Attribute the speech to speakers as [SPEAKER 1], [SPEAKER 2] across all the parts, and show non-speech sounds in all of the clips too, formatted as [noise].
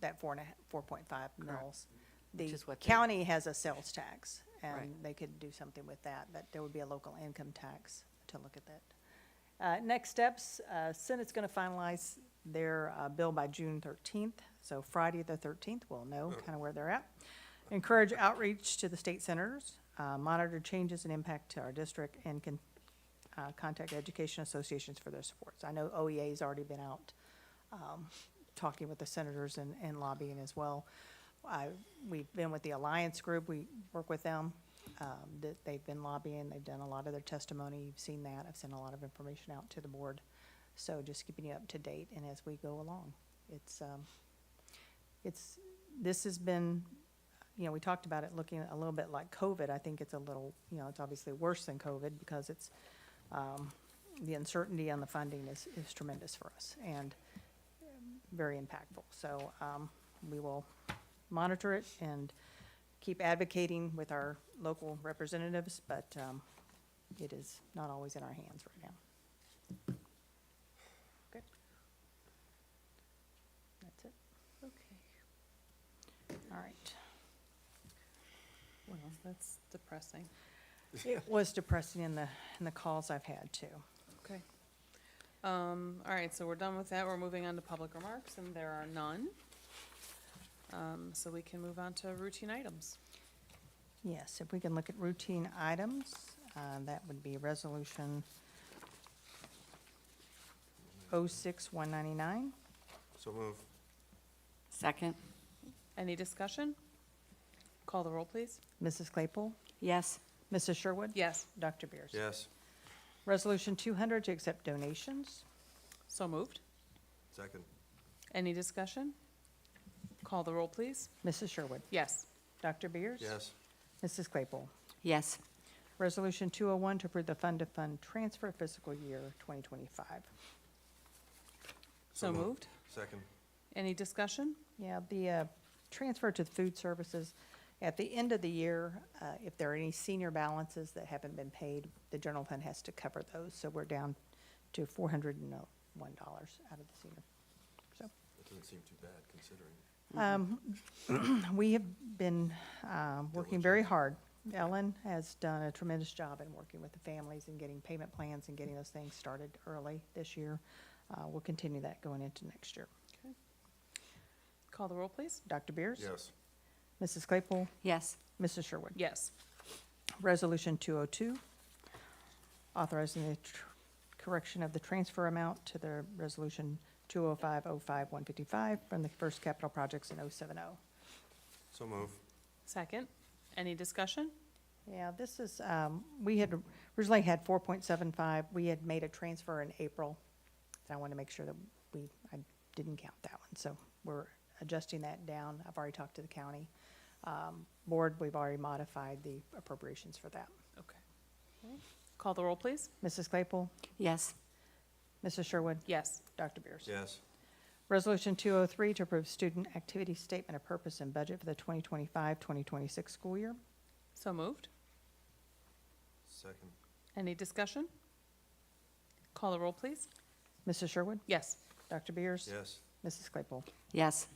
[SPEAKER 1] that four and a, four point five mills. The
[SPEAKER 2] is what they-
[SPEAKER 1] county has a sales tax, and
[SPEAKER 2] Right.
[SPEAKER 1] they could do something with that, but there would be a local income tax to look at that. Uh, next steps, uh, Senate's gonna finalize their, uh, bill by June thirteenth, so Friday the thirteenth, we'll
[SPEAKER 2] Oh.
[SPEAKER 1] know kinda where they're at. Encourage outreach to the state senators, uh, monitor changes and impact to our district, and can, uh, contact education associations for their supports. I know OEA's already been out, um, talking with the senators and, and lobbying as well. I, we've been with the Alliance Group, we work with them, um, that they've been lobbying, they've done a lot of their testimony, you've seen that, I've sent a lot of information out to the board. So just keeping you up to date and as we go along, it's, um, it's, this has been, you know, we talked about it looking a little bit like COVID, I think it's a little, you know, it's obviously worse than COVID because it's, um, the uncertainty on the funding is, is tremendous for us and um, very impactful. So, um, we will monitor it and keep advocating with our local representatives, but, um, it is not always in our hands right now. Good. That's it.
[SPEAKER 2] Okay.
[SPEAKER 1] All right.
[SPEAKER 2] Well, that's depressing.
[SPEAKER 1] It was depressing in the, in the calls I've had too.
[SPEAKER 2] Okay. Um, all right, so we're done with that. We're moving on to public remarks, and there are none. Um, so we can move on to routine items.
[SPEAKER 1] Yes, if we can look at routine items, uh, that would be Resolution 06199.
[SPEAKER 3] So move.
[SPEAKER 4] Second,
[SPEAKER 2] Any discussion? Call the roll, please.
[SPEAKER 1] Mrs. Claypool?
[SPEAKER 4] yes.
[SPEAKER 1] Mrs. Sherwood?
[SPEAKER 2] Yes,
[SPEAKER 1] Dr. Beers?
[SPEAKER 3] Yes.
[SPEAKER 1] Resolution 200 to accept donations.
[SPEAKER 2] so moved.
[SPEAKER 3] Second.
[SPEAKER 2] Any discussion? Call the roll, please.
[SPEAKER 1] Mrs. Sherwood?
[SPEAKER 2] Yes,
[SPEAKER 1] Dr. Beers?
[SPEAKER 3] Yes.
[SPEAKER 1] Mrs. Claypool?
[SPEAKER 4] Yes.
[SPEAKER 1] Resolution 201 to approve the fund-to-fund transfer fiscal year 2025.
[SPEAKER 2] so moved.
[SPEAKER 3] Second.
[SPEAKER 2] Any discussion?
[SPEAKER 1] Yeah, the uh, transfer to food services, at the end of the year, uh, if there are any senior balances that haven't been paid, the general fund has to cover those. So we're down to $401 uh, out of the senior
[SPEAKER 3] That doesn't seem too bad considering.
[SPEAKER 1] Um, [clears throat] We have been um, working very hard. Ellen has done a tremendous job in working with the families and getting payment plans and getting those things started early this year. Uh, We'll continue that going into next year.
[SPEAKER 2] Call the roll, please.
[SPEAKER 1] Dr. Beers?
[SPEAKER 3] Yes.
[SPEAKER 1] Mrs. Claypool?
[SPEAKER 4] Yes.
[SPEAKER 1] Mrs. Sherwood?
[SPEAKER 2] Yes,
[SPEAKER 1] Resolution 202, authorizing the tr- correction of the transfer amount to the Resolution 205-05-155 from the First Capital Projects in 070.
[SPEAKER 3] So move.
[SPEAKER 2] second. Any discussion?
[SPEAKER 1] Yeah, this is, um, we had originally had four point seven five, we had made a transfer in April. And I want to make sure that we, I didn't count that one, so we're adjusting that down. I've already talked to the county. Um, board, we've already modified the appropriations for that.
[SPEAKER 2] Okay. Call the roll, please.
[SPEAKER 1] Mrs. Claypool,
[SPEAKER 4] Yes.
[SPEAKER 1] Mrs. Sherwood,
[SPEAKER 2] Yes,
[SPEAKER 1] Dr. Beers.
[SPEAKER 3] Yes.
[SPEAKER 1] Resolution two oh three to approve student activity statement of purpose and budget for the 2025-2026 school year.
[SPEAKER 2] so moved.
[SPEAKER 3] Second.
[SPEAKER 2] Any discussion? Call the roll, please.
[SPEAKER 1] Mrs. Sherwood,
[SPEAKER 2] Yes,
[SPEAKER 1] Dr. Beers.
[SPEAKER 3] Yes.
[SPEAKER 1] Mrs. Claypool.
[SPEAKER 4] Yes.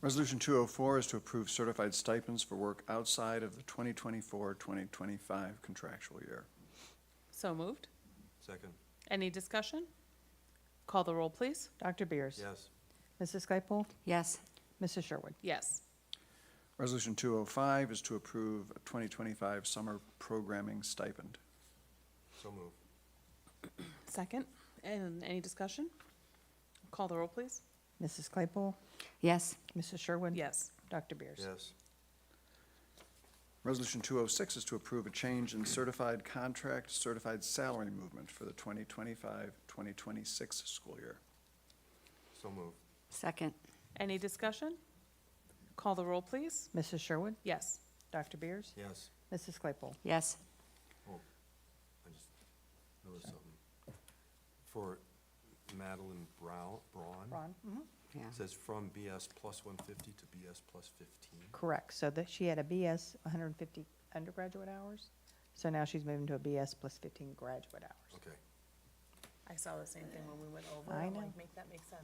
[SPEAKER 5] Resolution 204 is to approve certified stipends for work outside of the 2024-2025 contractual year.
[SPEAKER 2] so moved.
[SPEAKER 3] Second.
[SPEAKER 2] Any discussion? Call the roll, please.
[SPEAKER 1] Dr. Beers.
[SPEAKER 3] Yes.
[SPEAKER 1] Mrs. Claypool,
[SPEAKER 4] Yes.
[SPEAKER 1] Mrs. Sherwood.
[SPEAKER 2] Yes,
[SPEAKER 5] Resolution 205 is to approve a 2025 summer programming stipend.
[SPEAKER 3] So move.
[SPEAKER 2] second. And any discussion? Call the roll, please.
[SPEAKER 1] Mrs. Claypool,
[SPEAKER 4] Yes.
[SPEAKER 1] Mrs. Sherwood?
[SPEAKER 2] Yes,
[SPEAKER 1] Dr. Beers?
[SPEAKER 3] Yes.
[SPEAKER 5] Resolution 206 is to approve a change in certified contract, certified salary movement for the 2025-2026 school year.
[SPEAKER 3] So move.
[SPEAKER 4] Second,
[SPEAKER 2] any discussion? Call the roll, please.
[SPEAKER 1] Mrs. Sherwood?
[SPEAKER 2] Yes,
[SPEAKER 1] Dr. Beers?
[SPEAKER 3] Yes.
[SPEAKER 1] Mrs. Claypool?
[SPEAKER 4] yes.
[SPEAKER 3] I just noticed something. For Madeline Brown, Braun,
[SPEAKER 1] Ron? Mm-hmm.
[SPEAKER 4] Yeah.
[SPEAKER 3] it says from BS plus one fifty to BS plus fifteen.
[SPEAKER 1] Correct. So that she had a BS, 150 undergraduate hours. So now she's moving to a BS plus 15 graduate hours.
[SPEAKER 3] Okay.
[SPEAKER 2] I saw the same thing when we went over.
[SPEAKER 1] I
[SPEAKER 2] I'm
[SPEAKER 1] know.
[SPEAKER 2] like, Make that make sense.